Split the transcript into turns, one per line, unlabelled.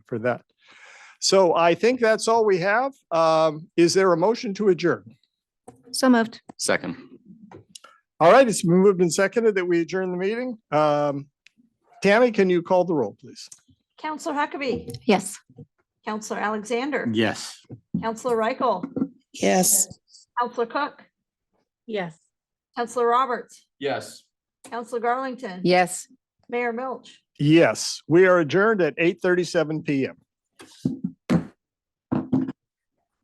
for that. So I think that's all we have. Um, Is there a motion to adjourn?
So moved.
Second.
All right, it's been moved and seconded that we adjourn the meeting. Um, Tammy, can you call the roll, please?
Counselor Huckabee,
Yes.
Counselor Alexander,
Yes.
Counselor Reichel,
Yes.
Counselor Cook,
Yes.
Counselor Roberts,
Yes.
Counselor Garlington.
Yes.
Mayor Milch.
Yes, we are adjourned at eight thirty-seven PM.